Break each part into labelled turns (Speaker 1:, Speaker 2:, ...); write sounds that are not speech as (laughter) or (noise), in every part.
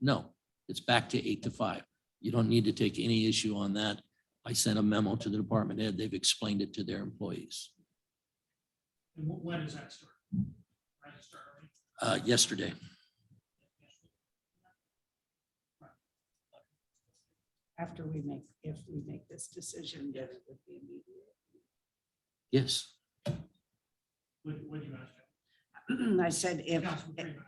Speaker 1: No, it's back to eight to five. You don't need to take any issue on that. I sent a memo to the department head. They've explained it to their employees
Speaker 2: And wh- when does that start? Right, it start early?
Speaker 1: uh, yesterday.
Speaker 3: after we make, if we make this decision, that it would be immediate.
Speaker 1: Yes,
Speaker 2: What, what do you ask?
Speaker 3: (clears throat) I said if,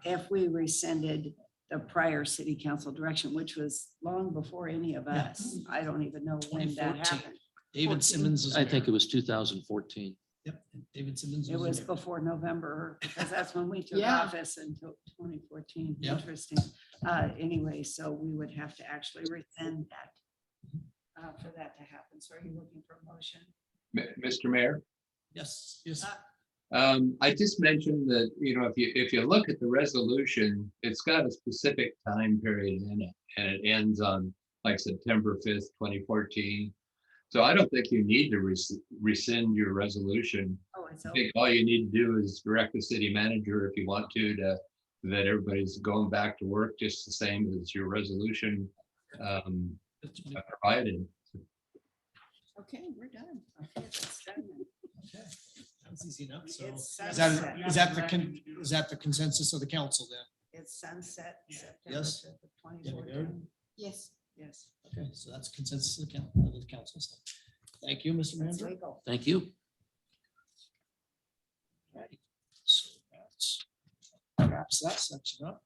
Speaker 3: if we rescinded the prior city council direction, which was long before any of
Speaker 4: Yeah.
Speaker 3: us, I don't even know when that
Speaker 4: 2014.
Speaker 3: happened.
Speaker 4: David
Speaker 3: 14.
Speaker 4: Simmons was.
Speaker 1: I think it
Speaker 4: there.
Speaker 1: was two thousand fourteen.
Speaker 4: Yep, David Simmons
Speaker 3: It
Speaker 4: was
Speaker 3: was
Speaker 4: there.
Speaker 3: before November, because that's when we took
Speaker 4: Yeah.
Speaker 3: office until twenty fourteen.
Speaker 4: Yeah.
Speaker 3: Interesting. Uh, anyway, so we would have to actually rescind that uh, for that to happen. So are you looking for a motion?
Speaker 5: M- Mr. Mayor,
Speaker 4: Yes, yes.
Speaker 3: Uh,
Speaker 5: um, I just mentioned that, you know, if you, if you look at the resolution, it's got a specific time period in it. And it ends on like September fifth, twenty fourteen. So I don't think you need to res- rescind your resolution.
Speaker 3: Oh, it's
Speaker 5: I
Speaker 3: over.
Speaker 5: think all you need to do is direct the city manager if you want to, to, that everybody's going back to work just the same as your resolution um,
Speaker 4: That's what it-
Speaker 5: provided.
Speaker 3: Okay, we're done. Okay, that's done.
Speaker 4: okay. That was easy enough, so.
Speaker 3: It's
Speaker 4: Is that,
Speaker 3: sunset.
Speaker 4: is that the, con- is that the consensus of the council then?
Speaker 3: It's sunset.
Speaker 2: Yeah.
Speaker 3: September
Speaker 4: Yes.
Speaker 3: 5th of
Speaker 4: There we go.
Speaker 3: 2014.
Speaker 6: Yes.
Speaker 3: Yes.
Speaker 4: Okay, so that's consensus of the coun- of the council. so. Thank you, Mr.
Speaker 3: That's
Speaker 4: Manager.
Speaker 3: legal.
Speaker 1: Thank you.
Speaker 4: Alrighty, So that's Wraps that section up.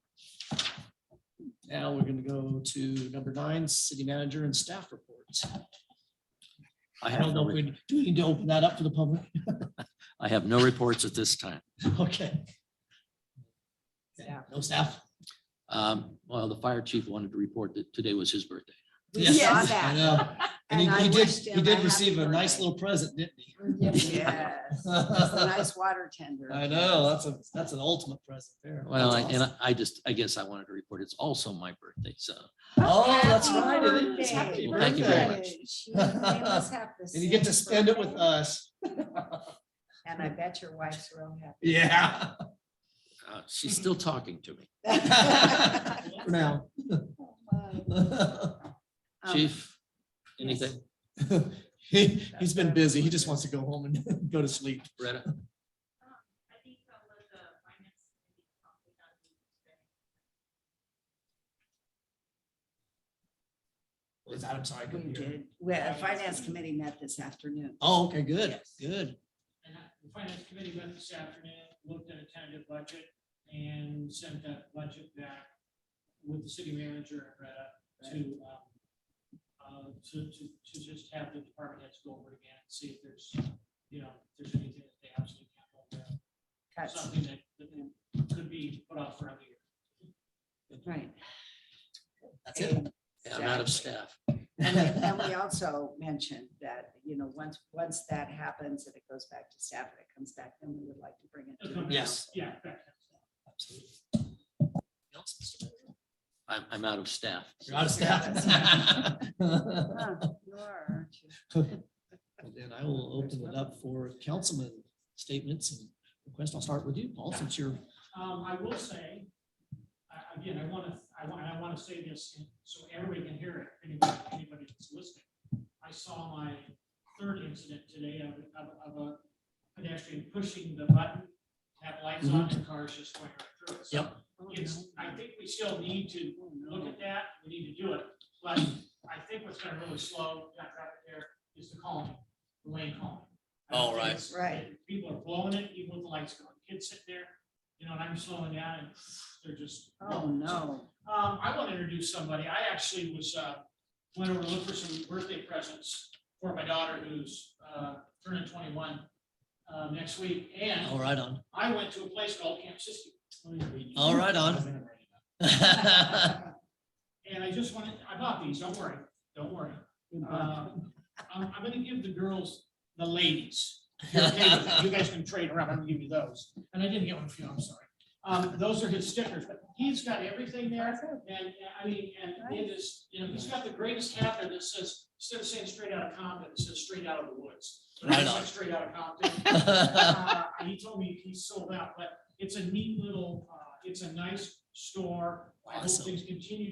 Speaker 4: Now we're gonna go to number nine, city manager and staff reports.
Speaker 1: I
Speaker 4: I
Speaker 1: have
Speaker 4: don't know
Speaker 1: no,
Speaker 4: if
Speaker 1: re-
Speaker 4: we, do we need to open that up to the public? (laughs)
Speaker 1: I have no reports at this time.
Speaker 4: Okay. Yeah,
Speaker 3: Staff.
Speaker 4: no staff.
Speaker 1: Um, well, the fire chief wanted to report that today was his birthday.
Speaker 3: We
Speaker 4: Yes,
Speaker 3: saw
Speaker 4: I
Speaker 3: that. (laughs)
Speaker 4: know. And
Speaker 3: And I
Speaker 4: he- he did,
Speaker 3: wished
Speaker 4: he
Speaker 3: him a
Speaker 4: did
Speaker 3: happy
Speaker 4: receive a nice
Speaker 3: birthday.
Speaker 4: little present, didn't he?
Speaker 3: Yes. That's a Nice water tender.
Speaker 4: I know, that's a, that's an ultimate present there.
Speaker 1: Well, I-
Speaker 4: That's
Speaker 1: and
Speaker 4: awesome.
Speaker 1: I- I just, I guess I wanted to report it's also my birthday, so.
Speaker 4: Oh, that's
Speaker 3: Happy
Speaker 4: right. it is.
Speaker 3: birthday.
Speaker 4: Happy
Speaker 1: Well, thank you very
Speaker 4: birthday.
Speaker 1: much.
Speaker 3: She- they must have the
Speaker 4: (laughs) And you get to
Speaker 3: same
Speaker 4: spend it with uh,
Speaker 3: birthday.
Speaker 4: us.
Speaker 3: And I bet your wife's real
Speaker 4: Yeah.
Speaker 1: uh, She's still talking to me.
Speaker 3: happy.
Speaker 4: (laughs) For now.
Speaker 3: Oh, Um,
Speaker 1: Chief, anything?
Speaker 4: He, he's been busy. He just wants to go home and (laughs) go to sleep.
Speaker 1: Retta?
Speaker 7: I think that was the finance. committee probably not meeting today.
Speaker 4: Is that, I'm sorry. I
Speaker 3: We
Speaker 4: couldn't hear.
Speaker 3: did. Well, finance committee met this afternoon.
Speaker 4: Oh, okay, good,
Speaker 3: Yes.
Speaker 4: good.
Speaker 2: And I- the finance committee met this afternoon, looked at a tentative budget and sent that budget back with the city manager and Retta to, um, uh, to, to, to just have the department heads go over it again and see if there's, you know, if there's anything that they absolutely can't hold there.
Speaker 3: Cuts.
Speaker 2: Something that, that could be put off for another year.
Speaker 3: Right.
Speaker 4: That's it.
Speaker 1: Yeah, I'm out of
Speaker 3: Exactly.
Speaker 1: staff.
Speaker 3: And we-
Speaker 4: (laughs)
Speaker 3: and we also mentioned that, you know, once, once that happens and it goes back to staff and it comes back, then we would like to bring it. to the
Speaker 4: Yes.
Speaker 3: council.
Speaker 2: Yeah. correct.
Speaker 4: Absolutely. Else, Mr. Mayor?
Speaker 1: I'm, I'm out of staff.
Speaker 4: You're out of (laughs) staff.
Speaker 3: Huh, You are, aren't you?
Speaker 4: Well, Then I will open it up for councilman statements and requests. I'll start with you, Paul, since you're,
Speaker 2: Um, I will say, I- again, I want to, I want, I want to say this and so everybody can hear it, anybody, anybody that's listening. I saw my third incident today of, of, of a pedestrian pushing the button, have lights on and cars just going right through it. So
Speaker 4: Mm-hmm. Yep.
Speaker 2: It's, I think we still need to look at that, we need to do it, but I think what's going to really slow that traffic there is the calming, the lane calming. I don't
Speaker 1: Oh,
Speaker 2: think
Speaker 1: right.
Speaker 2: it's-
Speaker 3: Right.
Speaker 2: People are blowing it, even with the lights going, kids sit there, you know, and I'm slowing down and they're just.
Speaker 3: Oh, no.
Speaker 2: Um, I want to introduce somebody. I actually was, uh, went over to look for some birthday presents for my daughter who's, uh, turning twenty-one, uh, next week. And
Speaker 4: all right
Speaker 1: (laughs)
Speaker 2: (laughs)
Speaker 4: on.
Speaker 2: I went to a place called Camp Siskiyou.
Speaker 4: All right on.
Speaker 2: And I just wanted, I bought these, don't worry, don't worry.
Speaker 3: You
Speaker 2: Uh,
Speaker 3: bought-
Speaker 2: I'm, I'm gonna give the girls, the ladies. You're okay with that. You guys can trade around, I'm gonna give you those. And I didn't get one for you, I'm sorry. Um, those are his stickers, but he's got everything there. And, and I mean, and it is, you know, he's got the greatest hat there that says, instead of saying straight out of Compton, it says straight out of the woods. But I
Speaker 4: Right
Speaker 2: said
Speaker 4: on.
Speaker 2: Straight out of Compton.
Speaker 4: (laughs)
Speaker 2: Uh, He told me he sold out, but it's a neat little, uh, it's a nice store. I hope
Speaker 4: Awesome.
Speaker 2: things continue to